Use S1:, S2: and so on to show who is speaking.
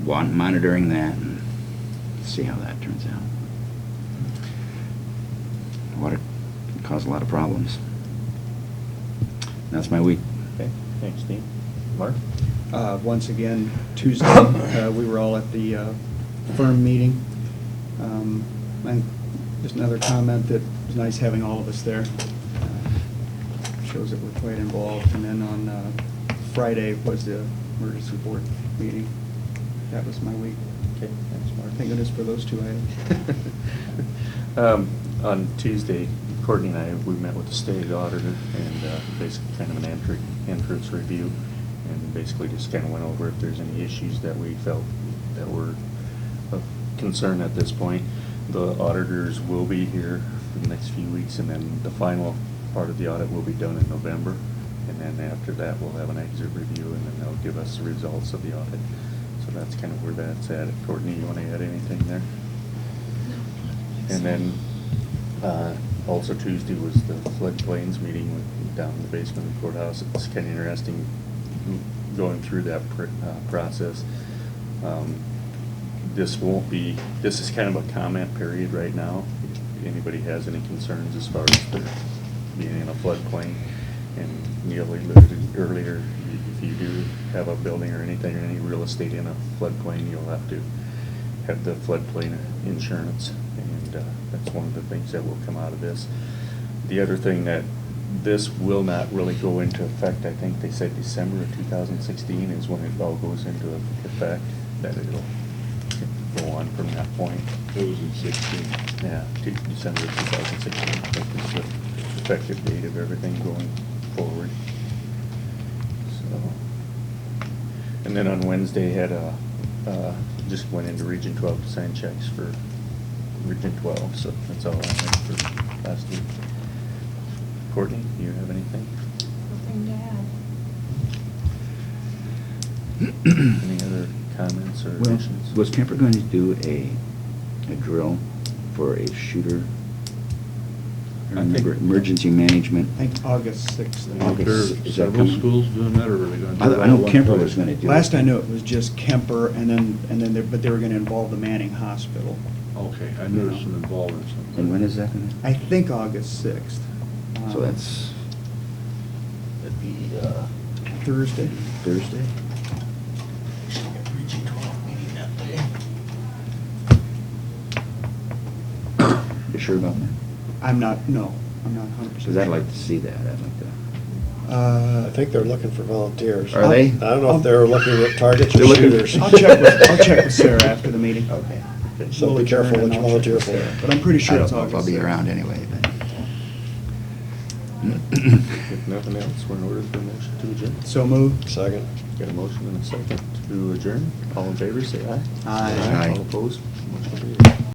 S1: wan- monitoring that and see how that turns out. Water can cause a lot of problems. That's my week.
S2: Okay, thanks, Dean. Mark?
S3: Uh, Once again, Tuesday, uh, we were all at the uh, firm meeting. Um, And just another comment that it was nice having all of us there. Uh, Shows that we're quite involved. And then on uh, Friday was the emergency board meeting. That was my week.
S2: Okay, thanks, Mark.
S3: Thank goodness for those two items.
S2: Um, On Tuesday, Courtney and I, we met with the state auditor and uh, basically kind of an entry, entrance review, and basically just kind of went over if there's any issues that we felt that were of concern at this point. The auditors will be here for the next few weeks, and then the final part of the audit will be done in November. And then after that, we'll have an exit review, and then they'll give us the results of the audit. So that's kind of where that's at. Courtney, you want to add anything there? And then, uh, also Tuesday was the floodplains meeting with- down in the basement of the courthouse. It's kind of interesting going through that pr- uh, process. Um, This won't be, this is kind of a comment period right now. If anybody has any concerns as far as there being in a floodplain, and Neil alluded earlier, if you do have a building or anything, or any real estate in a floodplain, you'll have to have the floodplain insurance, and uh, that's one of the things that will come out of this. The other thing that, this will not really go into effect, I think they said December of 2016 is when it all goes into effect, that it'll go on from that point.
S4: It was in sixteen.
S2: Yeah, to December of 2016, I think is the effective date of everything going forward. So, And then on Wednesday, had a, uh, just went into Region 12 to sign checks for Region 12, so that's all I had for last week. Courtney, do you have anything?
S5: Nothing to add.
S2: Any other comments or
S1: Well,
S2: additions?
S1: Was Kemper going to do a, a drill for a shooter? I
S2: I think-
S1: remember emergency management.
S3: I think August 6th.
S1: August.
S4: There are
S1: Is that
S4: Several
S1: coming?
S4: schools doing that, or are they gonna? do
S1: I- I
S4: it all
S1: know
S4: at one
S1: Kemper
S4: place?
S1: was gonna do it.
S3: Last I knew, it was just Kemper, and then, and then, they- but they were going to involve the Manning Hospital.
S4: Okay, I noticed an involvement somewhere.
S1: And when is that going
S3: I think August 6th.
S1: to? So
S3: Um,
S1: that's. That'd be uh,
S3: Thursday.
S1: Thursday? You sure about that?
S3: I'm not, no, I'm not 100%.
S1: Because I'd like to see that, I'd like to.
S3: Uh,
S6: I think they're looking for volunteers.
S1: Are they?
S6: I don't know if they're looking at targets
S1: They're
S6: or
S1: looking-
S6: shooters.
S3: Uh, I'll check with, I'll check with Sarah after the meeting.
S6: Okay.
S3: We'll
S6: So be
S3: adjourn
S6: careful
S3: and
S6: what you
S3: I'll check
S6: volunteer
S3: with
S6: for.
S3: Sarah. But I'm pretty
S1: I
S3: sure
S1: don't
S3: it's
S1: know
S3: August
S1: if I'll be
S3: 6th.
S1: around anyway, but.
S2: If nothing else, we're in order for a motion to adjourn.
S3: So moved.
S6: Second.
S2: Got a motion and a second to adjourn. All in favor, say aye.
S3: Aye.
S1: Aye.
S2: All opposed? Motion carries.